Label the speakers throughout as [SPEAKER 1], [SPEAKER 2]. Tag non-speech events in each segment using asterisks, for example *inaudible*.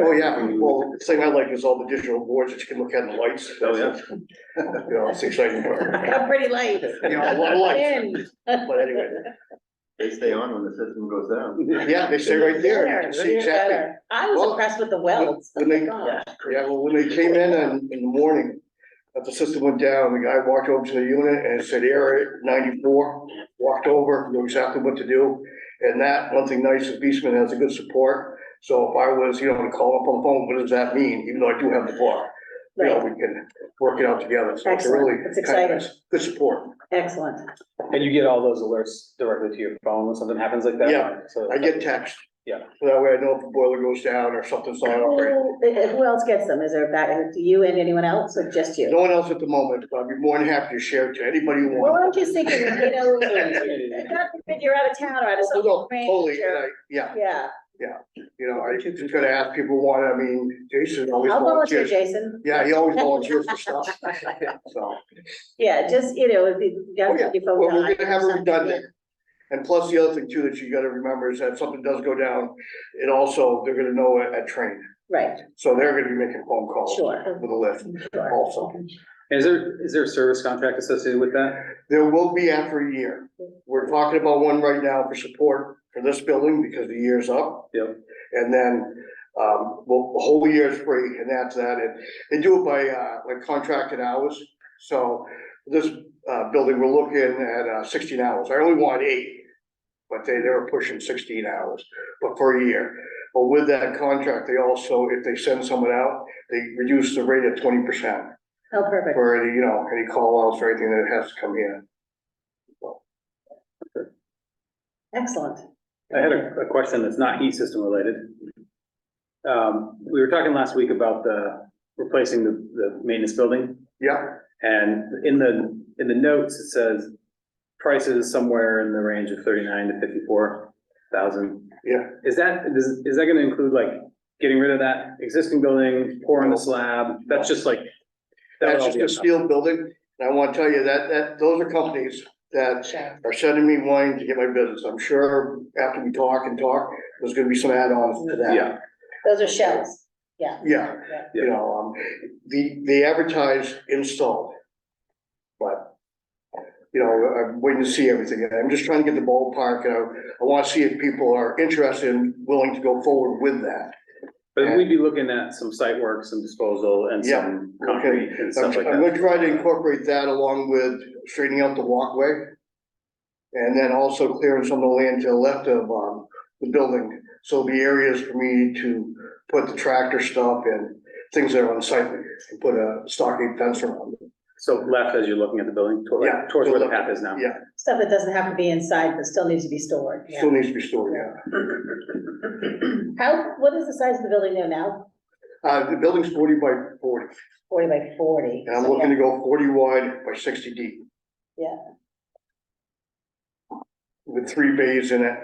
[SPEAKER 1] Oh, yeah, well, the thing I like is all the digital boards that you can look at and the lights.
[SPEAKER 2] Oh, yeah.
[SPEAKER 1] You know, it's exciting. You
[SPEAKER 3] A pretty light.
[SPEAKER 1] know, a lot of lights,
[SPEAKER 3] Pin.
[SPEAKER 1] but anyway,
[SPEAKER 2] They stay on when the system goes down.
[SPEAKER 1] yeah, they stay right there, you can see exactly.
[SPEAKER 3] Better. I was
[SPEAKER 1] Well,
[SPEAKER 3] impressed with the welds. Oh
[SPEAKER 1] when they-
[SPEAKER 3] my gosh.
[SPEAKER 1] Yeah, well, when they came in on, in the morning, that the system went down, the guy walked over to the unit and it said error at ninety-four. Walked over, knew exactly what to do, and that, one thing nice, is Beastman has a good support. So if I was, you know, to call up on the phone, what does that mean, even though I do have the bar, you know,
[SPEAKER 3] Right,
[SPEAKER 1] we can work it out together, so it's
[SPEAKER 3] Excellent.
[SPEAKER 1] really.
[SPEAKER 3] That's
[SPEAKER 1] kind of
[SPEAKER 3] exciting.
[SPEAKER 1] nice. Good support.
[SPEAKER 3] excellent.
[SPEAKER 4] And you get all those alerts directly to your phone when something happens like that?
[SPEAKER 1] Yeah,
[SPEAKER 4] So-
[SPEAKER 1] I get text.
[SPEAKER 4] Yeah.
[SPEAKER 1] So That way I know if the boiler goes down or something's not operating.
[SPEAKER 3] Who eh, who else gets them? Is there back, do you and anyone else or just you?
[SPEAKER 1] No one else at the moment, but I'd be more than happy to share it to anybody who
[SPEAKER 3] Well, I'm
[SPEAKER 1] wants.
[SPEAKER 3] just thinking, you
[SPEAKER 1] *laughs*
[SPEAKER 3] know, God forbid you're out of town or out of
[SPEAKER 1] Oh,
[SPEAKER 3] something.
[SPEAKER 1] no, Totally, and I, yeah,
[SPEAKER 3] Yeah,
[SPEAKER 1] you know, I just gotta ask people who want, I mean, Jason always
[SPEAKER 3] I'll volunteer,
[SPEAKER 1] volunteers.
[SPEAKER 3] Jason.
[SPEAKER 1] Yeah, he
[SPEAKER 3] *laughs*
[SPEAKER 1] always volunteers for stuff, so.
[SPEAKER 3] Yeah, just, you know, if you
[SPEAKER 1] Oh,
[SPEAKER 3] got
[SPEAKER 1] yeah.
[SPEAKER 3] your phone.
[SPEAKER 1] Well,
[SPEAKER 3] died
[SPEAKER 1] we're
[SPEAKER 3] or
[SPEAKER 1] gonna have it
[SPEAKER 3] something,
[SPEAKER 1] redundant. And plus, the other thing too that you gotta remember is that if something does go down, it also, they're gonna know it at train.
[SPEAKER 3] Right,
[SPEAKER 1] So they're gonna be making phone calls
[SPEAKER 3] sure,
[SPEAKER 1] with a lift
[SPEAKER 3] sure.
[SPEAKER 1] also.
[SPEAKER 4] Is there, is there a service contract associated with that?
[SPEAKER 1] There will be after a year. We're talking about one right now for support for this building because the year's up.
[SPEAKER 4] Yep.
[SPEAKER 1] And then, um, well, the whole year is free and that's that. And they do it by, uh, like contracted hours. So this, uh, building, we're looking at, uh, sixteen hours. I only want eight. But they, they were pushing sixteen hours, but for a year. But with that contract, they also, if they send someone out, they reduce the rate at twenty percent
[SPEAKER 3] Oh, perfect.
[SPEAKER 1] for any, you know, any call outs or anything that has to come in.
[SPEAKER 3] Excellent.
[SPEAKER 4] I had a, a question that's not heat system related. Um, we were talking last week about the, replacing the, the maintenance building.
[SPEAKER 1] Yeah,
[SPEAKER 4] And in the, in the notes, it says prices somewhere in the range of thirty-nine to fifty-four thousand.
[SPEAKER 1] yeah,
[SPEAKER 4] Is that, is, is that gonna include like getting rid of that existing building, pouring the slab? That's just like. that would
[SPEAKER 1] that's
[SPEAKER 4] all
[SPEAKER 1] just
[SPEAKER 4] be on
[SPEAKER 1] a steel
[SPEAKER 4] top.
[SPEAKER 1] building, and I wanna tell you that, that, those are companies that
[SPEAKER 3] Sure.
[SPEAKER 1] are sending me wine to get my business, I'm sure after we talk and talk, there's gonna be some add-ons to that.
[SPEAKER 4] Yeah,
[SPEAKER 3] Those are shells. Yeah.
[SPEAKER 1] Yeah,
[SPEAKER 3] Yeah.
[SPEAKER 1] you know, um, the, they advertise installed, but, you know, I'm waiting to see everything, and I'm just trying to get the ballpark, and I, I wanna see if people are interested and willing to go forward with that.
[SPEAKER 4] But we'd be looking at some site work, some disposal and
[SPEAKER 1] Yeah,
[SPEAKER 4] some
[SPEAKER 1] okay.
[SPEAKER 4] concrete and
[SPEAKER 1] I'm
[SPEAKER 4] stuff like
[SPEAKER 1] I'm gonna
[SPEAKER 4] that.
[SPEAKER 1] try to incorporate that along with straightening out the walkway. And then also clearing some of the land to the left of, um, the building, so there'll be areas for me to put the tractor stuff and things that are unsightly, and put a stockade fence around it.
[SPEAKER 4] So left as you're looking at the building, toward-
[SPEAKER 1] Yeah,
[SPEAKER 4] towards where the
[SPEAKER 1] to the
[SPEAKER 4] path is now.
[SPEAKER 1] Yeah.
[SPEAKER 3] Stuff that doesn't have to be inside, but still needs to be stored.
[SPEAKER 1] Still needs to be stored, yeah.
[SPEAKER 3] How, what is the size of the building there now?
[SPEAKER 1] Uh, the building's forty by forty,
[SPEAKER 3] Forty by forty.
[SPEAKER 1] and I'm looking to go forty wide by sixty deep.
[SPEAKER 3] Yeah.
[SPEAKER 1] With three bays in it,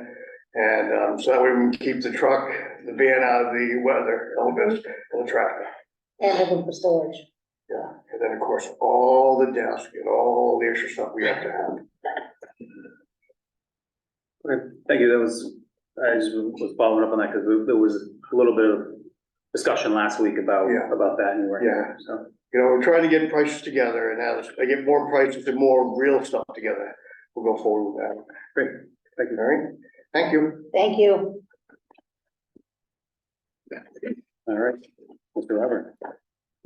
[SPEAKER 1] and, um, so that way we can keep the truck, the van out of the weather elements and the traffic.
[SPEAKER 3] And open for storage.
[SPEAKER 1] Yeah, and then, of course, all the desk and all the extra stuff we have to have.
[SPEAKER 4] Okay, Thank you, that was, I just was following up on that because there was a little bit of discussion last week about,
[SPEAKER 1] Yeah.
[SPEAKER 4] about that and where.
[SPEAKER 1] Yeah.
[SPEAKER 4] So,
[SPEAKER 1] You know, we're trying to get prices together and as I get more prices and more real stuff together, we'll go forward with that.
[SPEAKER 4] great, thank you.
[SPEAKER 1] All right, thank you.
[SPEAKER 3] Thank you.
[SPEAKER 4] All right, Mr. Robert.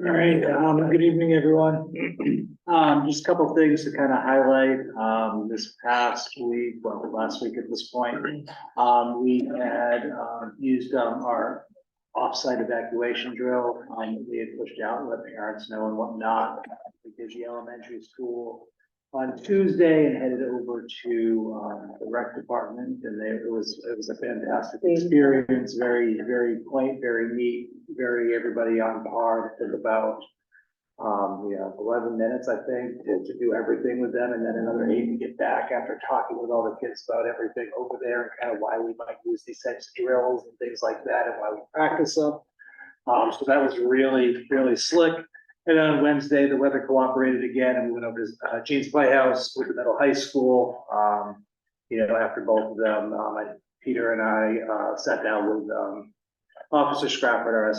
[SPEAKER 5] All right, um, good evening, everyone. *clears throat* Um, just a couple things to kind of highlight, um, this past week, well, last week at this point. Um, we had, um, used, um, our offsite evacuation drill, um, that we had pushed out, let parents know and whatnot. We did the elementary school on Tuesday and headed over to, um, the rec department and they, it was, it was a fantastic experience, very, very quaint, very neat, very everybody on par, It took about um, you know, eleven minutes, I think, to, to do everything with them, and then another eight to get back after talking with all the kids about everything over there and kind of why we might use these types of drills and things like that and why we practice them. Um, so that was really, really slick. And then on Wednesday, the weather cooperated again, and we went over to uh, Jean's Playhouse, Wicker Meadow High School. Um, you know, after both of them, um, I- Peter and I, uh, sat down with, um, Officer Scrapper, our